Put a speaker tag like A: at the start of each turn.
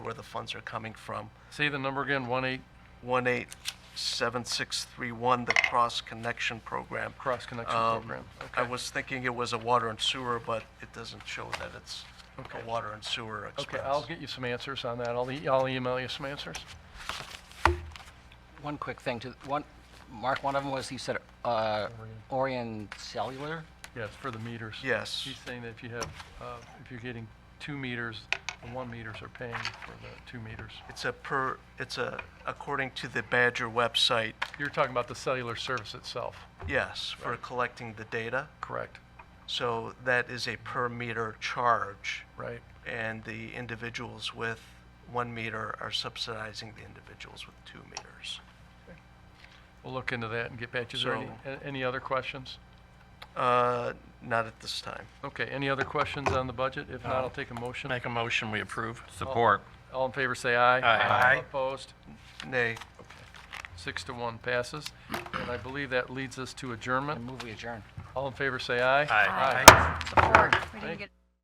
A: where the funds are coming from.
B: Say the number again, one eight,
A: 187631, the Cross Connection Program.
B: Cross Connection
A: Um,
B: Program,
A: I
B: okay.
A: was thinking it was a water and sewer, but it doesn't show that it's
B: Okay.
A: a water and sewer
B: okay,
A: expense.
B: I'll get you some answers on that. I'll, e- I'll email you some answers.
C: One quick thing to, one, Mark, one of them was, you said, uh, Orion Cellular?
B: Yes, for the meters.
A: Yes.
B: He's saying that if you have, uh, if you're getting two meters, the one meters are paying for the two meters.
A: It's a per, it's a, according to the Badger website,
B: You're talking about the cellular service itself,
A: yes, for collecting the data.
B: correct?
A: So that is a per meter charge.
B: Right,
A: And the individuals with one meter are subsidizing the individuals with two meters.
B: we'll look into that and get back to you. Is there any,
A: So-
B: a- any other questions?
A: Uh, Not at this time.
B: Okay, any other questions on the budget? If not, I'll take a motion.
D: Make a motion, we approve.
E: Support.
B: All in favor, say aye.
E: Aye. Aye.
B: Opposed?
A: Nay.
B: Six to one passes. And I believe that leads us to
C: I
B: adjournment.
C: move we adjourn.
B: All in favor, say aye.
E: Aye.
B: Aye.
F: Support. We didn't
B: Thank-
F: get